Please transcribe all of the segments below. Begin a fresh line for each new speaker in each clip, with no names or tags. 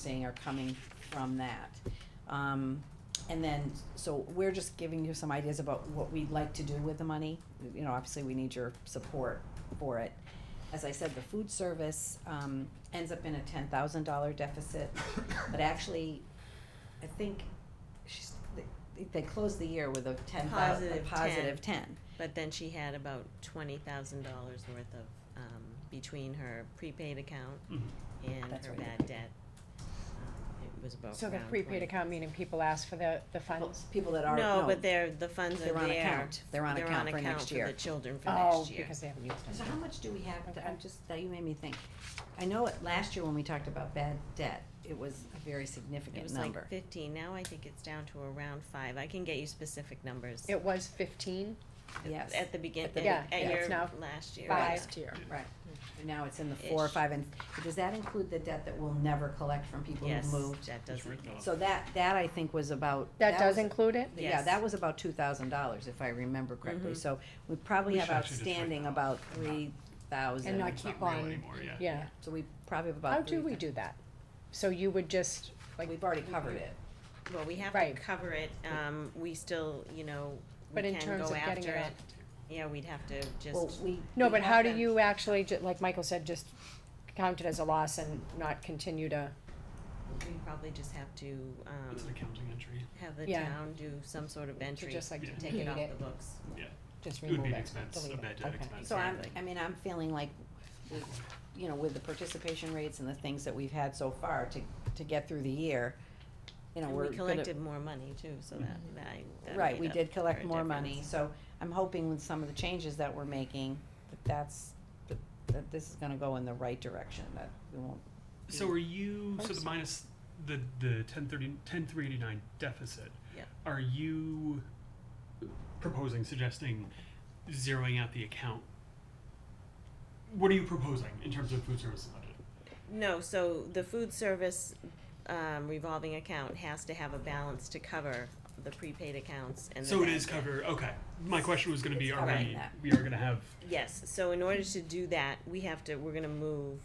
saying are coming from that. Um, and then, so we're just giving you some ideas about what we'd like to do with the money. You know, obviously, we need your support for it. As I said, the food service, um, ends up in a ten thousand dollar deficit, but actually, I think she's, they, they closed the year with a ten thousand, a
Positive 10.
positive ten.
But then she had about twenty thousand dollars worth of, um, between her prepaid account
Mhm.
and
That's
her
right.
bad debt. Um, It was about
So the
around
prepaid
20.
account, meaning people ask for the, the
People-
funds?
People that are,
No,
no,
but they're, the funds are there.
they're on account, they're on account for next year.
the children for
Oh,
next year.
because they haven't used
So
it.
how much do we have, to- I'm
Okay.
just, that you made me think. I know it, last year when we talked about bad debt, it was a very significant
It was
number.
like fifteen, now I think it's down to around five, I can get you specific numbers.
It was fifteen
Yes,
At the beginning,
At the
at
be- yeah,
at
it's
your
now
last year. yeah.
last year.
right. And Now it's in the four or
Ish.
five, and does that include the debt that we'll never collect from people
Yes,
who moved?
that
It's
doesn't,
written off.
So that, that I think was about.
That does
was-
include it?
Yeah,
Yes.
that was about two thousand dollars, if I remember correctly,
Mhm.
Mm-hmm.
so we probably
We
have
should actually just write
outstanding
that off.
about three thousand.
And not
It's
keep
not real
on,
anymore, yeah.
yeah.
So we probably have about.
How do
three
we
thou-
do that? So you would just, like,
We've already covered it.
well, we have to
Right.
cover it, um, we still, you know, we
But in
can
terms
go
of getting
after
it
it, yeah, we'd have to
Well,
just,
we.
no,
we
but
have
how do
been-
you actually, ju- like Michael said, just count it as a loss and not continue to,
we probably just have to, um,
It's an accounting entry.
have the
Yeah.
town do some sort of
to
entry,
just like
Yeah.
take it
delete
off
it,
the books.
It
just
would
remove
be
it,
an expense, a
delete
bad
it,
debt
okay.
expense.
So I'm,
Exactly.
I mean, I'm feeling like, we- you know, with the participation rates and the things that we've had so far to, to get through the year, you know,
And
we're
we
gonna-
collected more money too, so that,
Mm-hmm.
that, that
Right,
made
we
up
did collect
for a
more money,
difference.
so I'm hoping with some of the changes that we're making, that that's, that, that this is gonna go in the right direction, that we won't.
So are you, so the
Oops.
minus the, the ten thirty, ten three eighty-nine deficit?
Yeah.
Are you proposing, suggesting zeroing out the account? What are you proposing in terms of food service budget?
No, so the food service um, revolving account has to have a balance to cover the prepaid accounts and the
So it
bad
is
debt.
covered, okay. My question was gonna be,
It's
are
covering
we,
that.
we are gonna have,
Yes, so in order to do that, we have to, we're gonna move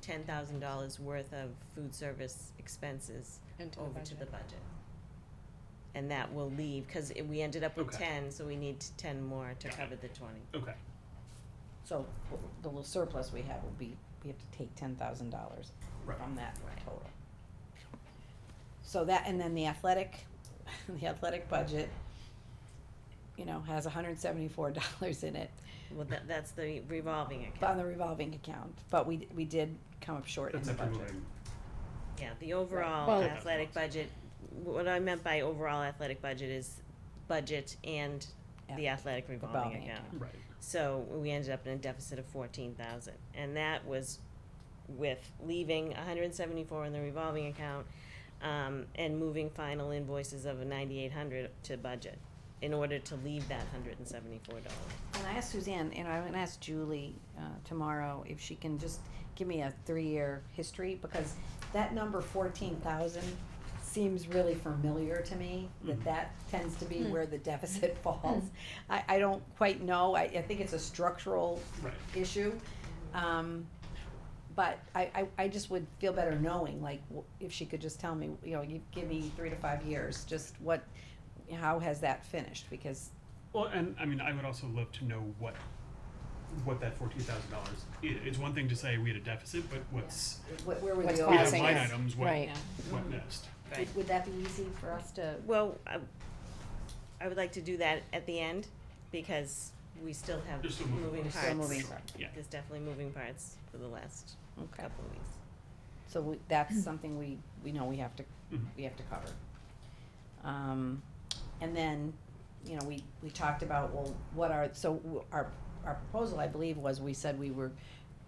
ten thousand dollars worth of food service expenses
Into the
over to the
budget.
budget. And that will leave, cause it- we ended up with
Okay.
ten, so we need ten more to
Got it.
cover the twenty.
okay,
So the little surplus we have will be, we have to take ten thousand dollars
Right.
from that total. So that, and then the athletic, the athletic budget, you know, has hundred and seventy-four dollars in it
Well, that, that's the revolving
on
account,
the revolving account, but we, we did come up short in
that's
the
up to
budget.
moving.
yeah, the overall
Well-
athletic budget, what I meant by overall athletic budget is budget and the athletic revolving
Revolving
account.
account.
Right,
So we ended up in a deficit of fourteen thousand, and that was with leaving hundred and seventy-four in the revolving account, um, and moving final invoices of ninety-eight hundred to budget, in order to leave that hundred and seventy-four dollars.
And I asked Suzanne, and I'm gonna ask Julie, uh, tomorrow if she can just give me a three-year history, because that number fourteen thousand seems really familiar to me, that
Mm.
Mhm.
that tends to
Hmm.
be where the deficit falls. I, I don't quite know, I, I think it's a structural
right.
issue. Um, but I, I, I just would feel better knowing, like, w- if she could just tell me, you know, you give me three to five years, just what, how has that finished, because
Well, and I mean, I would also love to know what what that fourteen thousand dollars is. It's one thing to say we had a deficit, but what's
wh- where were the
What's
old?
we have
Crossing
line
it.
items. What
Right.
what next?
Would, would that be easy for us to?
Well, I, I would like to do that at the end, because we still have
There's still moving
moving
parts.
parts.
Still moving parts.
Yeah.
There's definitely moving parts for the last
Okay.
couple of weeks.
So we,
Mm-hmm.
that's something we, we know we have to,
Mhm.
we have to cover. Um, and then, you know, we, we talked about, well, what are, so w- our, our proposal, I believe, was we said we were,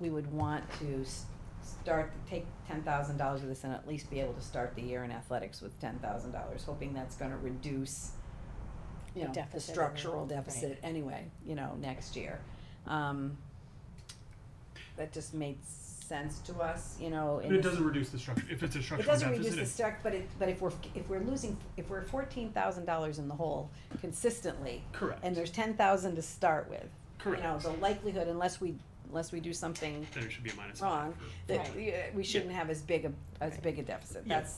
we would want to s- start, take ten thousand dollars of this and at least be able to start the year in athletics with ten thousand dollars, hoping that's gonna reduce, you
The
know, the
deficit anyway,
structural
right.
deficit anyway, you know, next year. Um, that just made sense to us, you know,
But
in
it
this-
doesn't reduce the structure. If it's a
it
structural
doesn't reduce
deficit,
the
it's
stock, but it, but if we're, if we're losing, if we're fourteen thousand dollars in the hole consistently,
correct.
and there's ten thousand to start with. You know,
correct.
the likelihood, unless we, unless we do something
then it should be a minus.
wrong, that
Right.
we, uh, we shouldn't have as big a, as big a deficit,
Yeah.
that's,